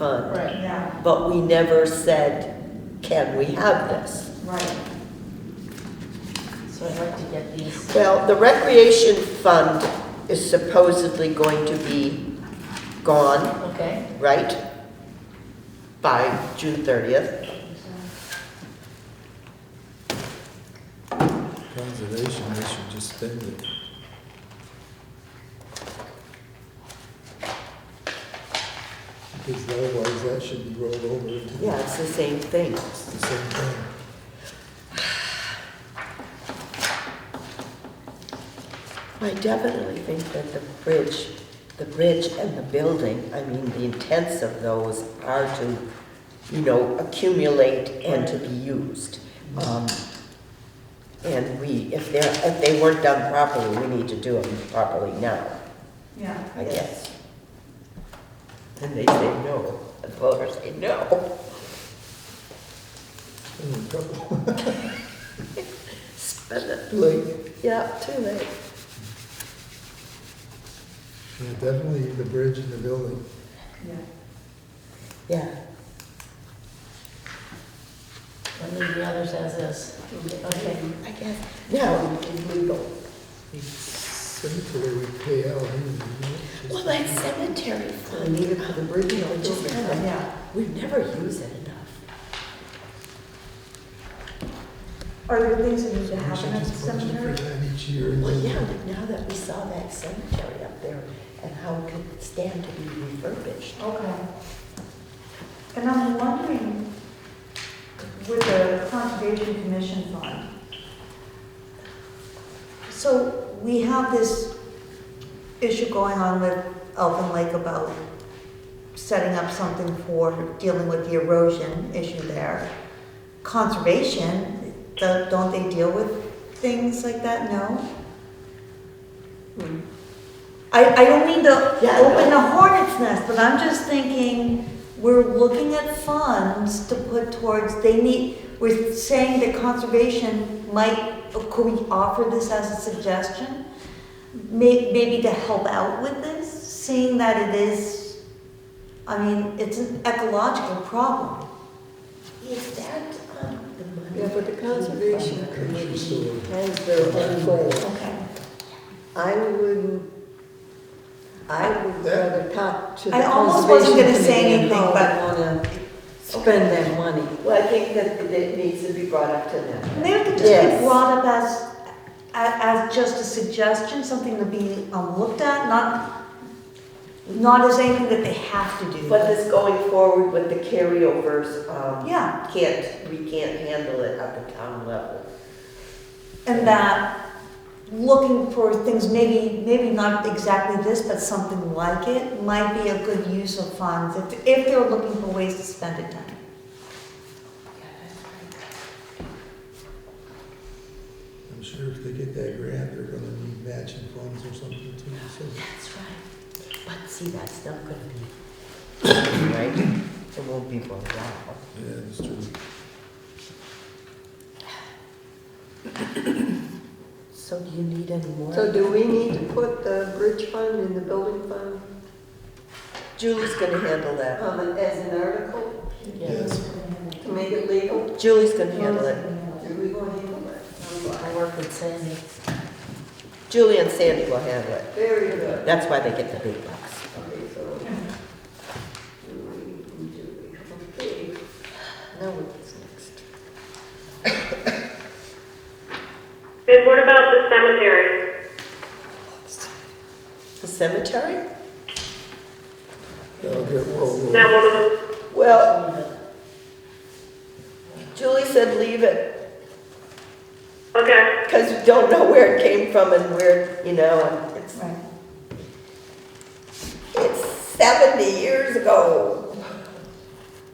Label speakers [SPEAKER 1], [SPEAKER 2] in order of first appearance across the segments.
[SPEAKER 1] fund,
[SPEAKER 2] Right,
[SPEAKER 3] Yeah,
[SPEAKER 1] but we never said, can we have this?
[SPEAKER 3] right.
[SPEAKER 2] so I'd like to get these.
[SPEAKER 1] Well, the recreation fund is supposedly going to be gone,
[SPEAKER 2] Okay,
[SPEAKER 1] right? By June thirtieth.
[SPEAKER 4] Conservation, they should just spend it. Because otherwise, that should be rolled over into the
[SPEAKER 1] Yeah, it's the same thing.
[SPEAKER 4] it's the same thing.
[SPEAKER 1] I definitely think that the bridge, the bridge and the building, I mean, the intents of those are to, you know, accumulate and to be used. Um, And we, if they're, if they weren't done properly, we need to do them properly now,
[SPEAKER 3] Yeah.
[SPEAKER 1] I guess. And they say no, the voters say no.
[SPEAKER 4] Mm, couple-
[SPEAKER 1] Spend it.
[SPEAKER 4] Like,
[SPEAKER 1] Yeah, too late.
[SPEAKER 4] yeah, definitely the bridge and the building.
[SPEAKER 3] Yeah.
[SPEAKER 1] Yeah.
[SPEAKER 2] I'll leave the others as is. Okay,
[SPEAKER 1] I guess, now, legal.
[SPEAKER 4] Cemetery we pay out. anyway, you know,
[SPEAKER 1] Well,
[SPEAKER 4] just-
[SPEAKER 1] that cemetery
[SPEAKER 2] I
[SPEAKER 1] fund,
[SPEAKER 2] need it for the bridge.
[SPEAKER 1] you know, it just kind of,
[SPEAKER 3] Yeah.
[SPEAKER 1] we never use it enough.
[SPEAKER 3] Are there things that need to
[SPEAKER 4] We
[SPEAKER 3] happen
[SPEAKER 4] should
[SPEAKER 3] at the
[SPEAKER 4] just budget for
[SPEAKER 3] cemetery?
[SPEAKER 4] that each year. and
[SPEAKER 1] Well,
[SPEAKER 4] then-
[SPEAKER 1] yeah, but now that we saw that cemetery up there and how it could stand to be refurbished.
[SPEAKER 3] Okay. And I'm wondering, with the Conservation Commission Fund, so we have this issue going on with Elfin Lake about setting up something for dealing with the erosion issue there. Conservation, do- don't they deal with things like that? No? I, I don't mean to
[SPEAKER 1] Hmm. Yeah, I
[SPEAKER 3] open
[SPEAKER 1] know.
[SPEAKER 3] a hornet's nest, but I'm just thinking, we're looking at funds to put towards, they need, we're saying that conservation might, could we offer this as a suggestion? May, maybe to help out with this, seeing that it is, I mean, it's an ecological problem.
[SPEAKER 1] Is that, um, the money?
[SPEAKER 5] Yeah, but the conservation
[SPEAKER 4] Country
[SPEAKER 5] committee
[SPEAKER 4] store.
[SPEAKER 5] has their own goal.
[SPEAKER 3] Okay.
[SPEAKER 5] I wouldn't, I would rather talk to the
[SPEAKER 3] I almost wasn't
[SPEAKER 5] conservation
[SPEAKER 3] gonna
[SPEAKER 5] committee
[SPEAKER 3] say
[SPEAKER 5] and
[SPEAKER 3] anything,
[SPEAKER 5] how
[SPEAKER 3] but-
[SPEAKER 5] they wanna spend that money.
[SPEAKER 1] Well, I think that it needs to be brought up to them.
[SPEAKER 3] Maybe it could just
[SPEAKER 1] Yes.
[SPEAKER 3] be brought up as, as, as just a suggestion, something to be um, looked at, not, not as anything that they have to do.
[SPEAKER 1] But this going forward with the carryovers, um,
[SPEAKER 3] Yeah,
[SPEAKER 1] can't, we can't handle it at the town level.
[SPEAKER 3] and that looking for things, maybe, maybe not exactly this, but something like it, might be a good use of funds if, if they're looking for ways to spend it down.
[SPEAKER 4] I'm sure if they get that grant, they're gonna need matching funds or something too, so.
[SPEAKER 1] That's right. But see, that's not gonna be, right? It won't be for a while.
[SPEAKER 4] Yeah, that's true.
[SPEAKER 1] So do you need any more?
[SPEAKER 5] So do we need to put the bridge fund in the building fund
[SPEAKER 1] Julie's gonna handle that.
[SPEAKER 5] um, as an article
[SPEAKER 2] yes.
[SPEAKER 5] to make it legal?
[SPEAKER 1] Julie's gonna handle it.
[SPEAKER 5] Do we go handle it?
[SPEAKER 2] I'll work with Sandy.
[SPEAKER 1] Julie and Sandy will handle it.
[SPEAKER 5] Very good.
[SPEAKER 1] That's why they get the big bucks.
[SPEAKER 5] Okay, so. Julie, Julie, okay.
[SPEAKER 1] Now what's next?
[SPEAKER 6] Then what about the cemetery?
[SPEAKER 1] The cemetery?
[SPEAKER 4] That'll get rolled over.
[SPEAKER 6] That one,
[SPEAKER 1] Well, Julie said leave it,
[SPEAKER 6] okay,
[SPEAKER 1] because you don't know where it came from and where, you know, and it's,
[SPEAKER 3] Right.
[SPEAKER 1] it's seventy years ago.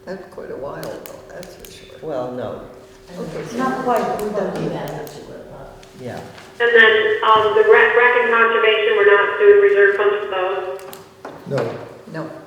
[SPEAKER 5] That's quite a while ago, that's for sure.
[SPEAKER 1] Well, no,
[SPEAKER 5] Okay, so-
[SPEAKER 3] Not quite, we
[SPEAKER 2] We
[SPEAKER 3] don't
[SPEAKER 2] don't do that to it, but
[SPEAKER 1] yeah.
[SPEAKER 6] and then, um, the rec, rec and conservation, we're not doing reserve funds for those.
[SPEAKER 4] No,
[SPEAKER 5] No.